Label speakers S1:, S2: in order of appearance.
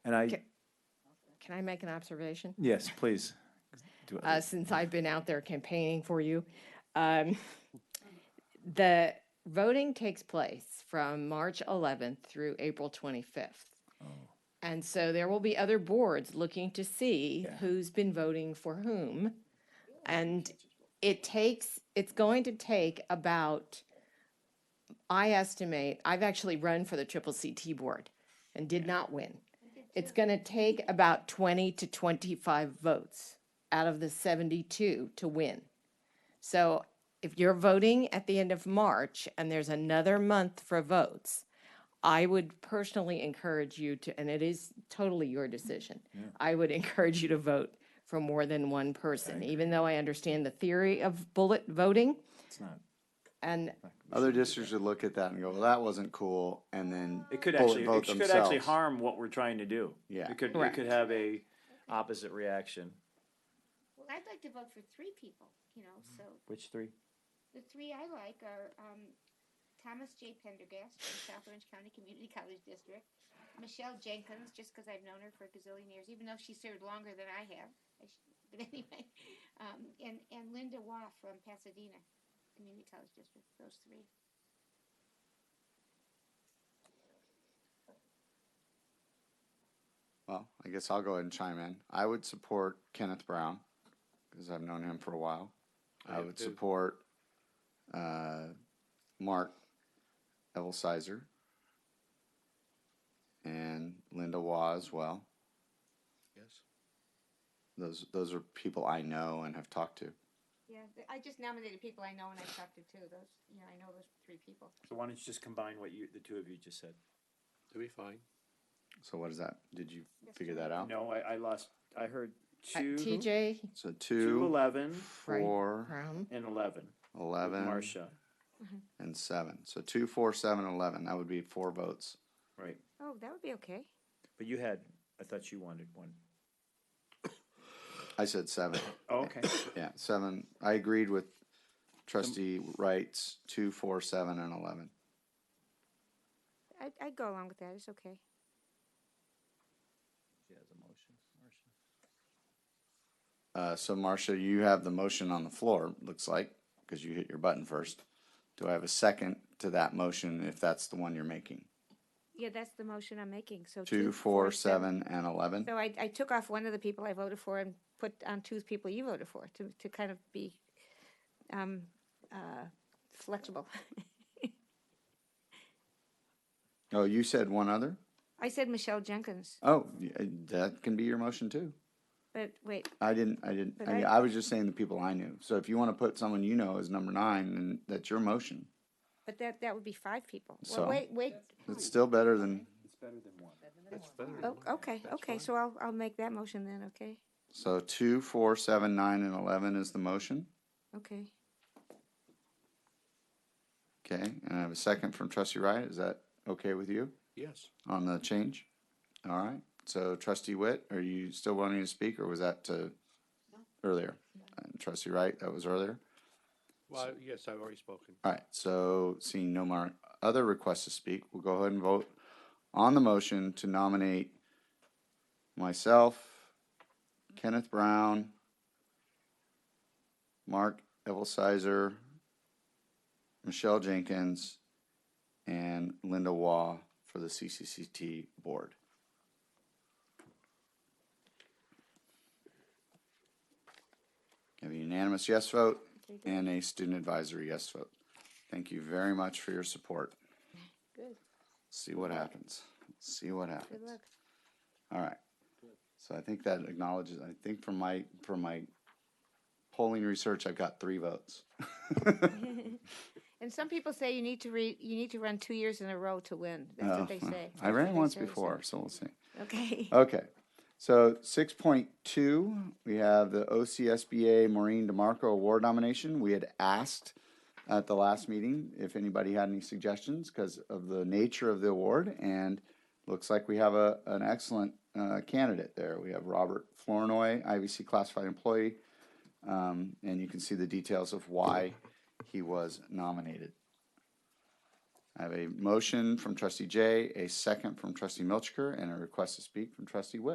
S1: Can I make an observation?
S2: Yes, please. Do it.
S1: uh, since I've been out there campaigning for you. Um, the voting takes place from March 11th through April 25th. And so there will be other boards looking to see
S2: Yeah.
S1: who's been voting for whom. And it takes, it's going to take about, I estimate, I've actually run for the triple CT board and did not win. It's going to take about 20 to 25 votes out of the 72 to win. So if you're voting at the end of March and there's another month for votes, I would personally encourage you to, and it is totally your decision, I would encourage you to vote for more than one person, even though I understand the theory of bullet voting.
S2: It's not.
S1: And uh,
S3: Other districts would look at that and go, well, that wasn't cool, and then
S4: It could
S3: bullet
S4: actually,
S3: vote
S4: it could actually
S3: themselves.
S4: harm what we're trying to do.
S3: Yeah.
S4: It could, it
S1: Correct.
S4: could have a opposite reaction.
S5: Well, I'd like to vote for three people, you know,
S3: Mm-hmm.
S5: so
S4: Which three?
S5: the three I like are um, Thomas J. Pendergast from South Orange County Community College District, Michelle Jenkins, just because I've known her for a gazillion years, even though she served longer than I have. I sh- but anyway, um, and, and Linda Waugh from Pasadena Community College District, those three.
S3: Well, I guess I'll go ahead and chime in. I would support Kenneth Brown because I've known him for a while. I
S4: have
S3: would
S4: too.
S3: support uh, Mark Evelsizer and Linda Waugh as well.
S6: Yes.
S3: Those those are people I know and have talked to.
S5: Yeah, I just nominated people I know and I've talked to too. Those, you know, I know those three people.
S4: So why don't you just combine what you, the two of you just said?
S6: It'll be fine.
S3: So what is that? Did you
S5: Yes,
S3: figure
S5: two.
S3: that out?
S4: No, I, I lost, I heard
S1: Oh. uh,
S4: two,
S1: TJ
S3: So
S4: two
S3: two,
S4: eleven
S1: Right.
S3: four,
S1: Crum,
S4: and eleven. with
S3: eleven,
S4: Marcia,
S3: and seven. So two, four, seven, eleven. That would be four votes.
S4: right.
S5: Oh, that would be okay.
S4: But you had, I thought you wanted one.
S3: I said seven.
S4: Oh, okay.
S3: Yeah, seven. I agreed with trustee Wright's two, four, seven, and eleven.
S5: I'd, I'd go along with that. It's okay.
S3: Uh, so Marcia, you have the motion on the floor, looks like, because you hit your button first. Do I have a second to that motion if that's the one you're making?
S5: Yeah, that's the motion I'm making, so.
S3: Two, four, seven, and eleven?
S5: So I, I took off one of the people I voted for and put on two people you voted for to, to kind of be, um, uh, flexible.
S3: Oh, you said one other?
S5: I said Michelle Jenkins,
S3: Oh, y- uh, that can be your motion too.
S5: but wait,
S3: I didn't, I didn't,
S5: But
S3: I,
S5: I-
S3: I was just saying the people I knew. So if you want to put someone you know as number nine, then that's your motion.
S5: but that, that would be five people.
S3: So-
S5: Well, wait, wait,
S3: It's still better than,
S4: It's better than one.
S5: oh, okay, okay, so I'll, I'll make that motion then, okay?
S3: so two, four, seven, nine, and eleven is the motion.
S5: Okay.
S3: Okay, and I have a second from trustee Wright. Is that okay with you
S6: Yes.
S3: on the change? All right, so trustee Witt, are you still wanting to speak or was that to earlier? And Trustee Wright, that was earlier.
S6: Well, I- yes, I've already spoken.
S3: All right, so seeing no more other requests to speak, we'll go ahead and vote on the motion to nominate myself, Kenneth Brown, Mark Evelsizer, Michelle Jenkins, and Linda Waugh for the CCCT board. Have a unanimous yes vote and a student advisory yes vote. Thank you very much for your support.
S5: Good.
S3: See what happens. See what happens.
S5: Good luck.
S3: All right. So I think that acknowledges, I think from my, from my polling research, I've got three votes.
S5: And some people say you need to read, you need to run two years in a row to win. That's
S3: Oh,
S5: what they
S3: well,
S5: say.
S3: I ran
S5: That's what they
S3: once
S5: say, so-
S3: before, Oh, so we'll see.
S5: Okay.
S3: Okay. So six point two, we have the OCSBA Maureen DeMarco Award nomination. We had asked at the last meeting if anybody had any suggestions because of the nature of the award, and looks like we have a an excellent uh, candidate there. We have Robert Flournoy, IVC classified employee, um, and you can see the details of why he was nominated. I have a motion from trustee Jay, a second from trustee Milchker, and a request to speak from trustee Witt.